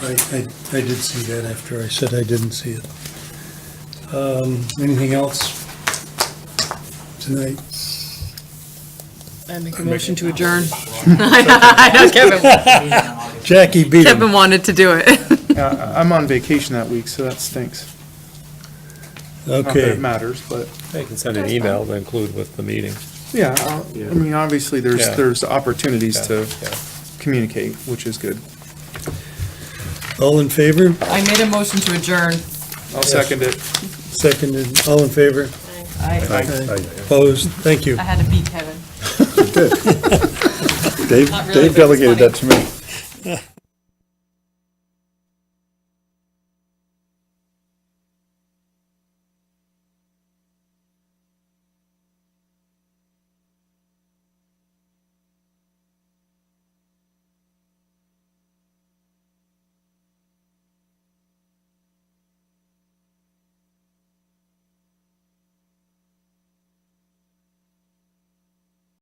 I, I, I did see that after I said I didn't see it. Um, anything else tonight? I make a motion to adjourn. I know, Kevin, Jackie beat him. Kevin wanted to do it. Yeah, I- I'm on vacation that week, so that stinks. Not that it Okay, matters, but, They can send an email to include with the meeting. yeah, I'll- I mean, obviously, there's, Yeah. there's opportunities Yeah, to yeah. communicate, which is good. all in favor? I made a motion to adjourn. I'll second it. Seconded, all in favor? I, Aye. Opposed? Thank you. I had to beat Kevin. Dave, Not Dave really, but it's delegated funny. that to me.